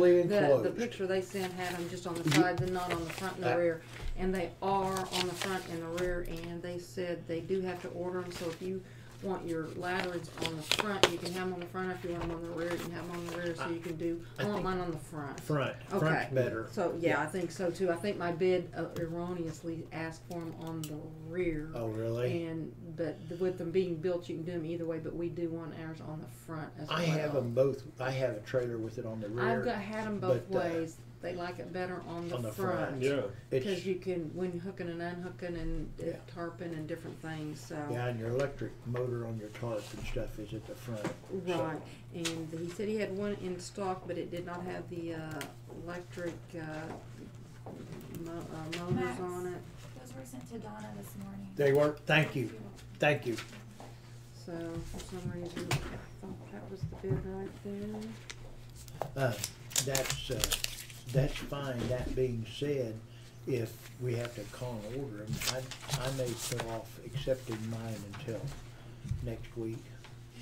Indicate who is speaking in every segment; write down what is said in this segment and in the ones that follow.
Speaker 1: the, the
Speaker 2: enclosed.
Speaker 1: picture they sent had them just on the side, then not on the front and the
Speaker 2: Uh,
Speaker 1: rear. And they are on the front and the rear, and they said they do have to order them, so if you want your lanterns on the front, you can have them on the front. If you want them on the rear, you can have them on the rear, so you can do, I
Speaker 2: I
Speaker 1: want
Speaker 2: think-
Speaker 1: mine on the front.
Speaker 2: Front,
Speaker 1: Okay.
Speaker 2: front's better.
Speaker 1: So, yeah, I think so too. I think my bid uh, erroneously asked for them on the rear.
Speaker 2: Oh, really?
Speaker 1: And, but with them being built, you can do them either way, but we do want ours on the front as well.
Speaker 2: I have them both, I have a trailer with it on the rear.
Speaker 1: I've got, had them both
Speaker 2: but, uh,
Speaker 1: ways. They like it better on the
Speaker 2: on the front.
Speaker 1: front.
Speaker 3: Yeah,
Speaker 1: Because
Speaker 2: It's,
Speaker 1: you can, when hooking and unhooking and uh,
Speaker 2: Yeah.
Speaker 1: tarping and different things, so.
Speaker 2: yeah, and your electric motor on your tarp and stuff is at the front. so-
Speaker 1: Right, and he said he had one in stock, but it did not have the, uh, electric, uh, mo- uh, motors
Speaker 4: Max.
Speaker 1: on it,
Speaker 4: Those were sent to Donna this morning.
Speaker 2: They work, thank you, thank you.
Speaker 1: so for some reason, I thought that was the bid right there.
Speaker 2: Uh, That's, uh, that's fine. That being said, if we have to call and order them, I, I may put off accepting mine until next week.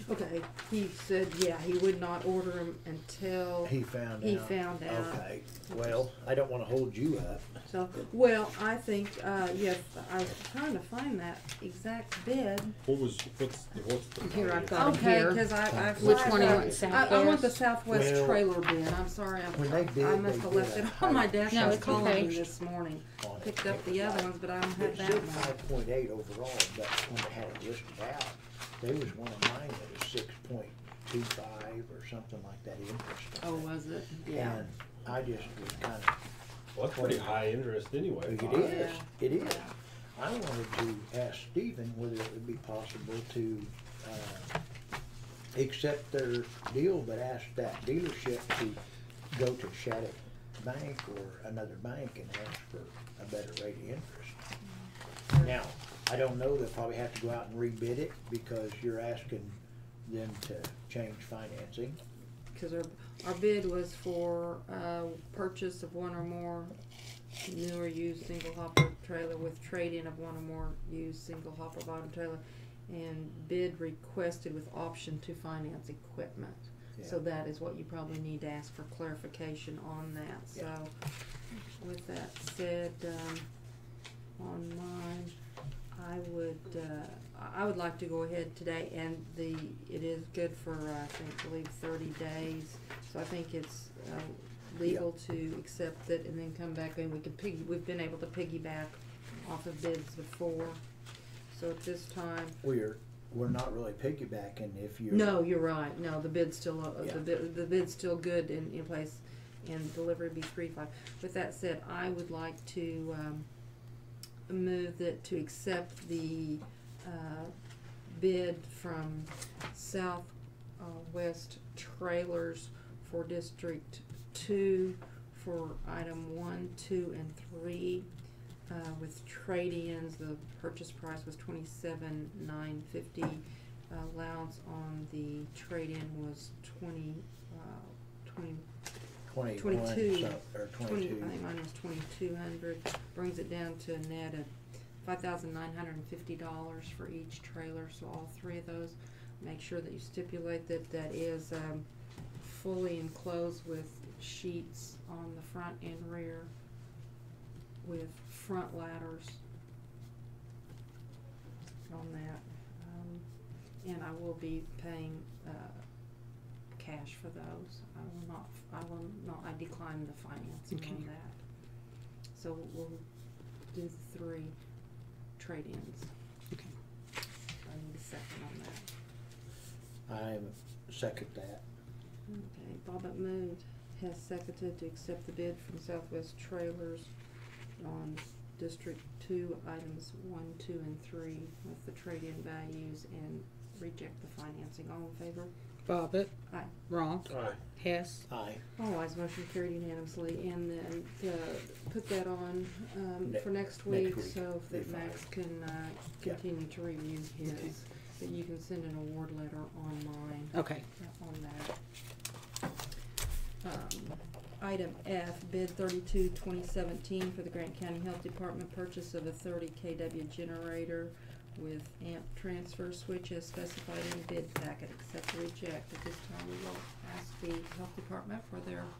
Speaker 1: Okay, he said, yeah, he would not order them until,
Speaker 2: He found out.
Speaker 1: He found out.
Speaker 2: Okay, well, I don't wanna hold you up.
Speaker 1: so, well, I think, uh, yes, I was trying to find that exact bid.
Speaker 3: what was, what's, the- what's the?
Speaker 5: Here, I've got- Bottom
Speaker 1: Okay,
Speaker 5: here.
Speaker 1: cause I, I.
Speaker 5: Which one do you
Speaker 1: I-
Speaker 5: want,
Speaker 1: I, I want the
Speaker 5: Southwest?
Speaker 1: Southwest
Speaker 2: Well,
Speaker 1: trailer bin, I'm sorry, I'm-
Speaker 2: when they bid,
Speaker 1: I must
Speaker 2: they
Speaker 1: have left
Speaker 2: bid
Speaker 1: it
Speaker 2: a
Speaker 1: on my
Speaker 2: higher
Speaker 1: desk,
Speaker 5: No,
Speaker 1: I was
Speaker 5: it's okay.
Speaker 1: calling you this morning.
Speaker 2: on it.
Speaker 1: Picked up the other ones, but I don't have
Speaker 2: It
Speaker 1: that
Speaker 2: said
Speaker 1: one.
Speaker 2: five point eight overall, but when I had it listed out, there was one of mine that was six point two five or something like that interest.
Speaker 1: Oh,
Speaker 2: on it.
Speaker 1: was it?
Speaker 2: And I just was kinda
Speaker 3: Well, that's pretty high interest anyway.
Speaker 2: It is, it is. I wanted to ask Stephen whether it would be possible to, uh, accept their deal, but ask that dealership to go to Shattuck Bank or another bank and ask for a better rate of interest. Now, I don't know, they'll probably have to go out and rebid it because you're asking them to change financing.
Speaker 1: Cause our, our bid was for, uh, purchase of one or more new or used single hopper trailer with trade-in of one or more used single hopper bottom trailer and bid requested with option to finance equipment. So
Speaker 2: Yeah.
Speaker 1: that is what you probably need to ask for clarification on that,
Speaker 2: Yeah.
Speaker 1: so with that said, um, on mine, I would, uh, I- I would like to go ahead today and the, it is good for, uh, I think, I believe thirty days. So I think it's, uh, legal to accept it and then come back and we can piggy, we've been able to piggyback off of bids before. So at this time,
Speaker 2: We're, we're not really piggybacking if you're.
Speaker 1: no, you're right, no, the bid's still, uh,
Speaker 2: Yeah.
Speaker 1: the bid, the bid's still good in, in place, and delivery be three five. With that said, I would like to, um, move that, to accept the, uh, bid from South, uh, West Trailers for District Two for item one, two, and three, uh, with trade-ins, the purchase price was twenty-seven nine fifty allowance on the trade-in was twenty, uh, twenty,
Speaker 2: Twenty-one,
Speaker 1: 22,
Speaker 2: some- or
Speaker 1: twenty,
Speaker 2: twenty-two.
Speaker 1: I think mine was twenty-two hundred, brings it down to a net of five thousand nine hundred and fifty dollars for each trailer, so all three of those. Make sure that you stipulate that that is, um, fully enclosed with sheets on the front and rear with front ladders on that. Um, and I will be paying, uh, cash for those. I will not, I will not, I decline the financing on
Speaker 5: Okay.
Speaker 1: that. So we'll do the three trade-ins.
Speaker 5: Okay.
Speaker 1: I need a second on that.
Speaker 2: I second that.
Speaker 1: Okay, Bobbit moved, has seconded to accept the bid from Southwest Trailers on District Two, items one, two, and three, with the trade-in values, and reject the financing. All in favor?
Speaker 5: Bobbit.
Speaker 1: Aye.
Speaker 5: Wrong.
Speaker 3: Aye.
Speaker 5: Hess.
Speaker 2: Aye.
Speaker 1: All ayes, Oh, motion carried unanimously, and then, uh, put that on, um,
Speaker 2: Ne-
Speaker 1: for next
Speaker 2: next
Speaker 1: week,
Speaker 2: week,
Speaker 1: so
Speaker 2: they
Speaker 1: that Max can, uh,
Speaker 2: Yeah.
Speaker 1: continue to review
Speaker 5: Okay.
Speaker 1: his. But you can send an award letter online.
Speaker 5: Okay.
Speaker 1: on that. Um, Item F, bid thirty-two, twenty seventeen for the Grant County Health Department, purchase of a thirty KW generator with amp transfer switch as specified in the bid packet, accept or reject. At this time, we will ask the health department for their